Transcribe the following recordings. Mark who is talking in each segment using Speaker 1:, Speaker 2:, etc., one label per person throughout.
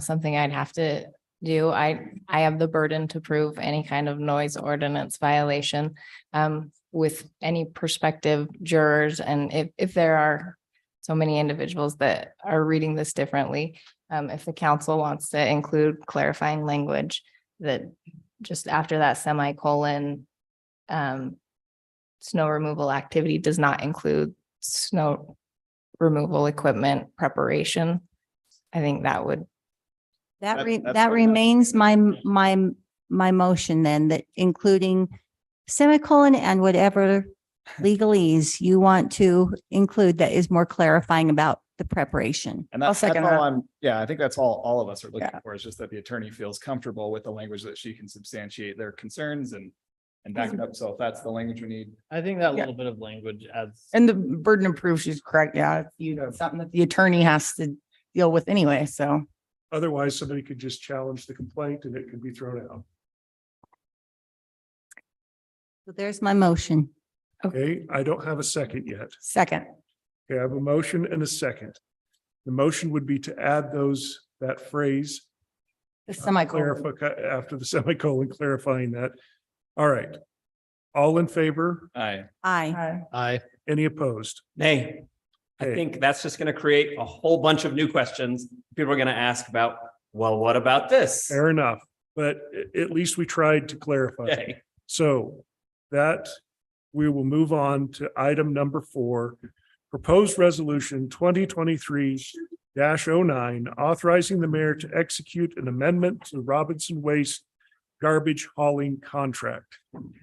Speaker 1: something I'd have to do. I, I have the burden to prove any kind of noise ordinance violation um, with any prospective jurors. And if, if there are so many individuals that are reading this differently, um, if the council wants to include clarifying language that just after that semicolon, um, snow removal activity does not include snow removal equipment preparation. I think that would
Speaker 2: That
Speaker 3: That-
Speaker 2: re,
Speaker 3: that's
Speaker 2: that
Speaker 3: what-
Speaker 2: remains my, m- my, m- my motion then, that including semicolon and whatever legalese you want to include that is more clarifying about the preparation.
Speaker 3: And
Speaker 4: I'll
Speaker 3: that's, that's
Speaker 4: second that.
Speaker 3: all I'm, yeah, I think that's all, all of us are looking
Speaker 4: Yeah.
Speaker 3: for is just that the attorney feels comfortable with the language that she can substantiate their concerns and. And back it up. So if that's the language we need,
Speaker 5: I think that
Speaker 4: Mm-hmm. Yeah.
Speaker 5: little bit of language adds.
Speaker 4: And the burden of proof, she's correct. Yeah, it's, you know, something that the attorney has to deal with anyway. So
Speaker 6: Otherwise, somebody could just challenge the complaint and it could be thrown out.
Speaker 2: So there's my motion.
Speaker 6: Okay, I don't have a second yet.
Speaker 4: second,
Speaker 6: Okay, I have a motion and a second. The motion would be to add those, that phrase. Uh,
Speaker 4: the semicolon.
Speaker 6: Clarify, after the semicolon clarifying that. All right. All in favor?
Speaker 3: I,
Speaker 2: Aye.
Speaker 4: Aye.
Speaker 5: I.
Speaker 6: Any opposed?
Speaker 7: Nay, I
Speaker 6: Okay.
Speaker 7: think that's just going to create a whole bunch of new questions. People are going to ask about, well, what about this?
Speaker 6: Fair enough, but a- at least we tried to clarify.
Speaker 7: Okay.
Speaker 6: So that we will move on to item number four. Proposed resolution twenty twenty-three 9 authorizing the mayor to execute an amendment to Robinson Waste garbage hauling contract.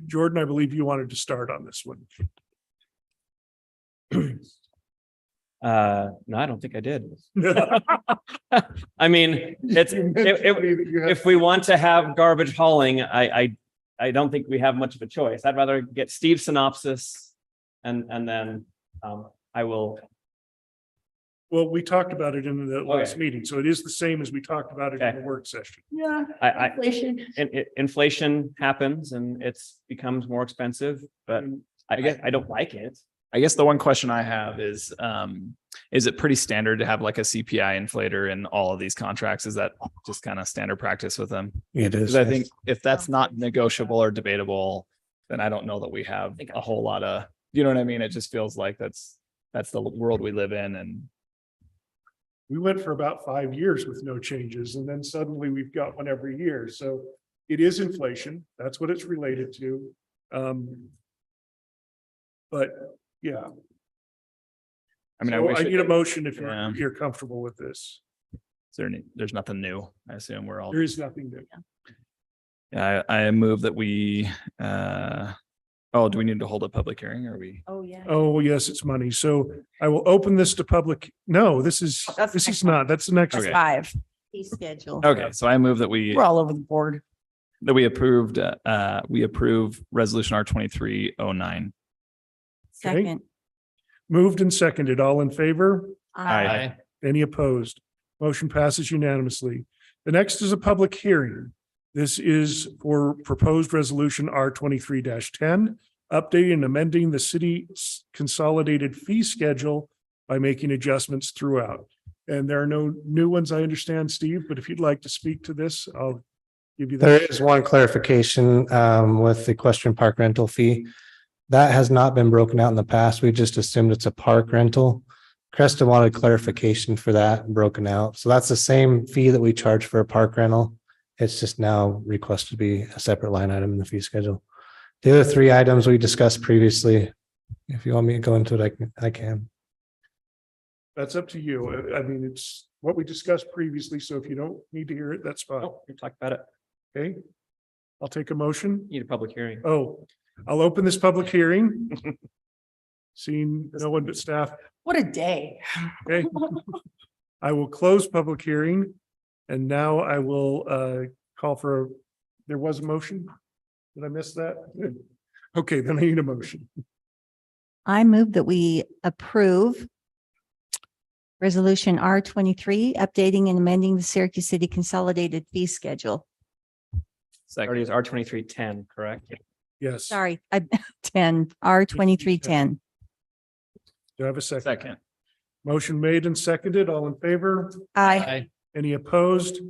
Speaker 6: Jordan, I believe you wanted to start on this one.
Speaker 7: Uh, no, I don't think I did. I mean, it's, it- it- if we want to have garbage hauling, I, I, I don't think we have much of a choice. I'd rather get Steve's synopsis and, and then, um, I will
Speaker 6: Well, we talked about it in the last meeting, so it is the same as we talked about it in
Speaker 7: Okay.
Speaker 6: the work session.
Speaker 4: Yeah.
Speaker 7: I, I, in, in- inflation happens and it's becomes more expensive, but I guess I don't like it.
Speaker 3: I guess the one question I have is, um, is it pretty standard to have like a CPI inflator in all of these contracts? Is that just kind of standard practice with them?
Speaker 6: It
Speaker 3: Because I think if that's not negotiable or debatable, then I don't know that we have a whole lot of, you know what I mean? It just feels like that's, that's the world we live in and
Speaker 6: we went for about five years with no changes and then suddenly we've got one every year. So it is inflation. That's what it's related to. Um. But, yeah.
Speaker 3: I mean, I
Speaker 6: So uh,
Speaker 3: wish,
Speaker 6: I
Speaker 3: it-
Speaker 6: need a motion if
Speaker 3: Yeah.
Speaker 6: you're, you're comfortable with this.
Speaker 3: is there any- there's nothing new. I assume we're all,
Speaker 6: There is nothing new.
Speaker 3: yeah, I, I move that we, uh, oh, do we need to hold a public hearing or we?
Speaker 2: Oh, yeah.
Speaker 6: Oh, yes, it's money. So I will open this to public. No, this is,
Speaker 4: Oh, That's
Speaker 6: this
Speaker 4: the next
Speaker 6: is
Speaker 4: one.
Speaker 6: not, that's the next.
Speaker 3: Okay.
Speaker 4: Five.
Speaker 2: schedule.
Speaker 3: Okay, so I move that we,
Speaker 4: We're all over the board.
Speaker 3: that we approved, uh, uh, we approve resolution R twenty-three oh nine.
Speaker 2: Second.
Speaker 6: Moved and seconded. All in favor?
Speaker 3: Aye.
Speaker 6: Any opposed? Motion passes unanimously. The next is a public hearing. This is for proposed resolution R twenty-three ten, updating and amending the city's consolidated fee schedule by making adjustments throughout. And there are no new ones, I understand, Steve, but if you'd like to speak to this, I'll give you. the-
Speaker 8: There is one clarification um, with the question park rental fee. That has not been broken out in the past. We just assumed it's a park rental. Cresta wanted clarification for that broken out. So that's the same fee that we charge for a park rental. It's just now requested to be a separate line item in the fee schedule. The other three items we discussed previously, if you want me to go into it, I can, I can.
Speaker 6: That's up to you. I- I mean, it's what we discussed previously, so if you don't need to hear it, that's fine.
Speaker 7: Nope, Oh, we talked about it.
Speaker 6: Okay? I'll take a motion.
Speaker 7: Need a public hearing.
Speaker 6: Oh, I'll open this public hearing. Seeing no one but staff,
Speaker 4: What a day.
Speaker 6: okay? I will close public hearing. And now I will uh call for, a- there was a motion? Did I miss that? Good. Okay, then I need a motion.
Speaker 2: I move that we approve Resolution R twenty-three, updating and amending the Syracuse City Consolidated Fee Schedule.
Speaker 7: Already is R twenty-three ten, correct?
Speaker 6: Yes.
Speaker 2: Sorry, I, ten, R twenty-three ten.
Speaker 6: Do I have a second?
Speaker 3: Second.
Speaker 6: Motion made and seconded. All in favor?
Speaker 2: Aye.
Speaker 5: I.
Speaker 6: Any opposed?